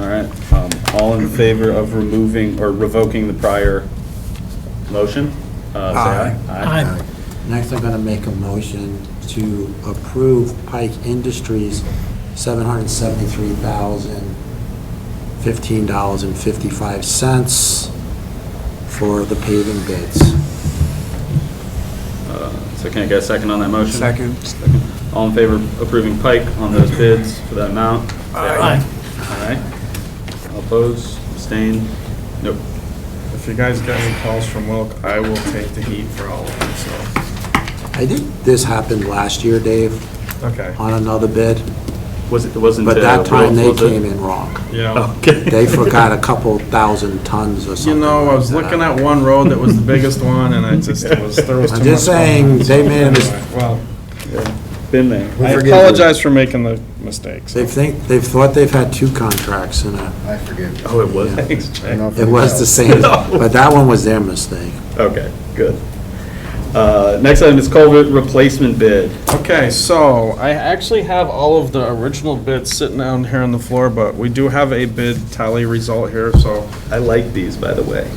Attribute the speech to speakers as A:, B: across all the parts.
A: um, all in favor of removing or revoking the prior motion? Uh, Say aye.
B: Aye.
C: Next, I'm going to make a motion to approve Pike Industries $773,015.55 for the paving bids.
A: Uh, So can I get a second on that motion?
D: Second.
A: All in favor of approving Pike on those bids for that amount? Say
B: Aye.
A: Aye. All Opposed, abstained? Nope.
D: If you guys get any calls from Wilk, I will take the heat for all of them, so,
C: I think this happened last year, Dave,
D: okay.
C: on another bid,
A: Was it, wasn't.
C: but
A: uh,
C: that time they
A: Wilk, was it?
C: came in wrong. Oh.
D: Yeah.
A: Okay.
C: They forgot a couple thousand tons or
D: You
C: something.
D: know, I was
C: like that.
D: looking at one road that was the biggest one, and I just, it was, there was too
C: I'm
D: much.
C: just
D: going
C: saying,
D: on.
C: they made a mis-
D: Anyway, Well,
A: Been there.
D: I
E: forgive you.
D: apologize for making the mistakes.
C: They think, they've thought they've had two contracts and uh,
E: I forgive you.
A: Oh, it was?
C: Yeah.
A: Thanks,
E: I don't
A: Jay.
E: know if
C: it
E: you
C: was
E: know.
C: the same, but that one was their mistake.
A: Okay, good. Uh, Next item is culvert replacement bid.
D: Okay, so I actually have all of the original bids sitting down here on the floor, but we do have a bid tally result here, so
A: I like these, by the way.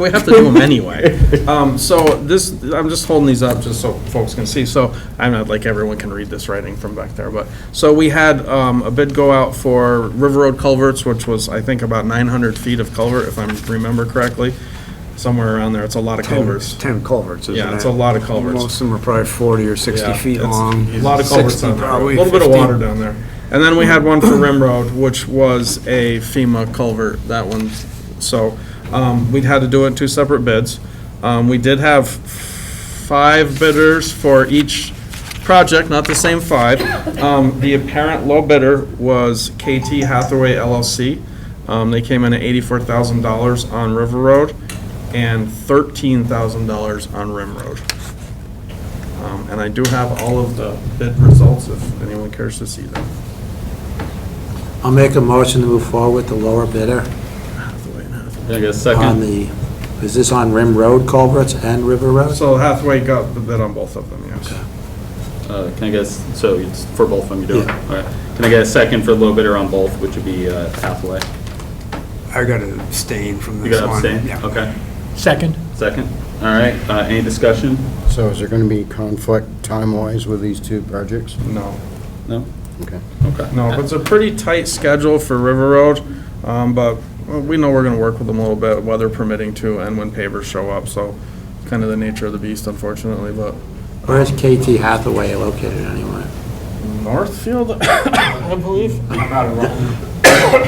D: We have to do them anyway. Um, so this, I'm just holding these up just so folks can see. So I'm not like everyone can read this writing from back there, but, so we had, um, a bid go out for River Road culverts, which was, I think, about nine hundred feet of culvert, if I remember correctly. Somewhere around there. It's a lot of culverts.
F: 10 culverts, isn't it?
D: Yeah, it's a lot of culverts.
F: Most of them are probably 40 or 60
D: Yeah,
F: feet
D: it's
F: long.
D: A lot of culverts
F: 60
D: on there, a
F: probably,
D: little bit of
F: 50.
D: water down there. And then we had one for Rim Road, which was a FEMA culvert, that one. So um, we'd had to do it in two separate bids. Um, We did have five bidders for each project, not the same five. Um, The apparent low bidder was KT Hathaway LLC. Um, They came in at $84,000 on River Road and $13,000 on Rim Road. Um, And I do have all of the bid results if anyone cares to see them.
C: I'll make a motion to move forward with the lower bidder
A: Can I get a
C: on
A: second?
C: the, is this on Rim Road culverts and River Road?
D: So Hathaway got the bid on both of them, yes.
A: Uh, Can I guess, so it's for both of them, you do it?
C: Yeah.
A: All right. Can I get a second for a little bidder on both, which would be uh, Hathaway?
F: I got to abstain from
A: You
F: this
A: got
F: one.
A: abstain?
F: Yeah.
A: Okay,
B: Second.
A: second. All right, uh, any discussion?
E: So is there going to be conflict time-wise with these two projects?
D: No,
A: No?
E: Okay.
A: Okay.
D: no, but it's a pretty tight schedule for River Road, um, but well, we know we're gonna work with them a little bit, weather permitting too, and when pavers show up, so kind of the nature of the beast unfortunately, but
C: Where's KT Hathaway located anyway?
D: Northfield, I believe.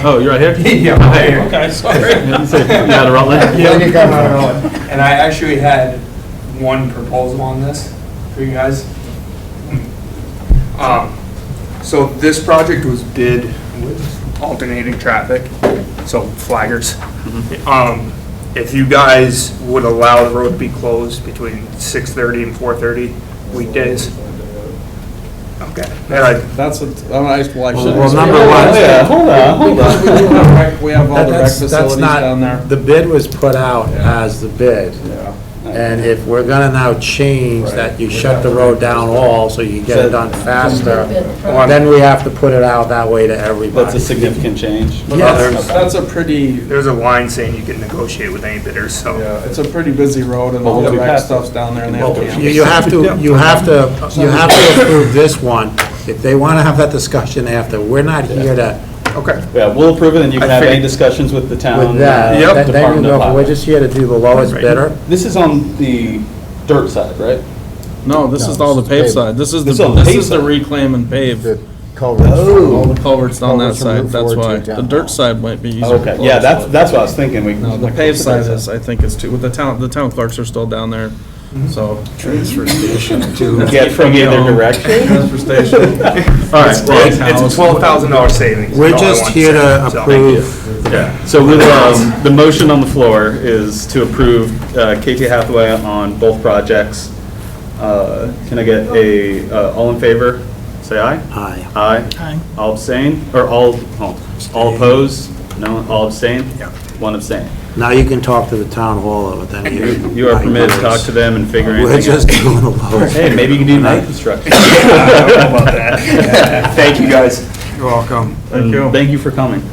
A: Oh, you're right here?
G: Yeah, I'm here.
D: Okay, sorry.
A: You said you had a Rutland?
G: Yeah, And I actually had one proposal on this for you guys. Um, So this project was bid with alternating traffic, so flaggers. Um, If you guys would allow the road to be closed between 6:30 and 4:30 weekdays. Okay, and I
D: That's, what- I don't know, I just- well, I shouldn't-
C: well, number one-
D: Yeah,
A: Hold on, hold
D: Because we do have rec- We have all the rec
C: That's- that's
D: facilities
C: not-
D: down there.
C: The bid was put out as the bid. And if we're gonna now change that you shut the road down all so you get it done faster, then we have to put it out that way to
A: That's a
C: everybody.
A: significant change.
C: Yes.
D: That's a pretty,
G: there's a line saying you can negotiate with any bidder, so.
D: yeah, it's a pretty busy road and all
A: Well,
D: the
A: we
D: rec
A: passed-
D: stuff's down there and they have
C: Well, You
D: cameras.
C: you have to, you have to, you have to approve this one. If they wanna have that discussion after, we're not here to,
G: Okay.
A: Yeah, we'll approve it, and you can
G: I
A: have any
G: think-
A: discussions with the town.
C: with that.
A: Um, Yep.
C: Then- Then you
A: Department of
C: go, we're
A: Highway.
C: just here to do the lowest bidder.
A: This is on the dirt side, right?
D: No, this is all the paved side. This is the,
A: This is all
D: this
A: paved
D: is the
A: side.
D: reclaim and pave.
E: The culverts.
D: All the culverts on that
E: Culverts from
D: side,
E: Route
D: that's
E: four to
D: why. The
E: down.
D: dirt side might be easier. to
A: Okay, yeah,
D: close.
A: that's, that's what I was thinking. We-
D: No, the paved side is, I think is too, with the town, the town clerks are still down there, so. Transfer station too.
A: Get from either direction.
D: Transfer station.
A: All right,
G: It's
A: well,
G: it's a twelve thousand dollar savings. is
C: We're
G: all I
C: just
G: want
C: here to
G: say, so.
C: approve.
A: yeah. so with, um, the motion on the floor is to approve uh, KT Hathaway on both projects. Uh, Can I get a, uh, all in favor, say aye?
C: Aye.
A: Aye.
B: Aye.
A: All abstain, or all, oh, all all opposed? No, all abstain? Yeah. One abstain.
C: Now you can talk to the town hall over then. You
A: You are permitted to talk to them and figure
C: We're
A: anything out.
C: just doing the lowest.
A: Hey, maybe you can do night construction.
G: I don't know about that. Thank you, guys.
F: You're welcome.
D: Thank you.
A: Thank you for coming.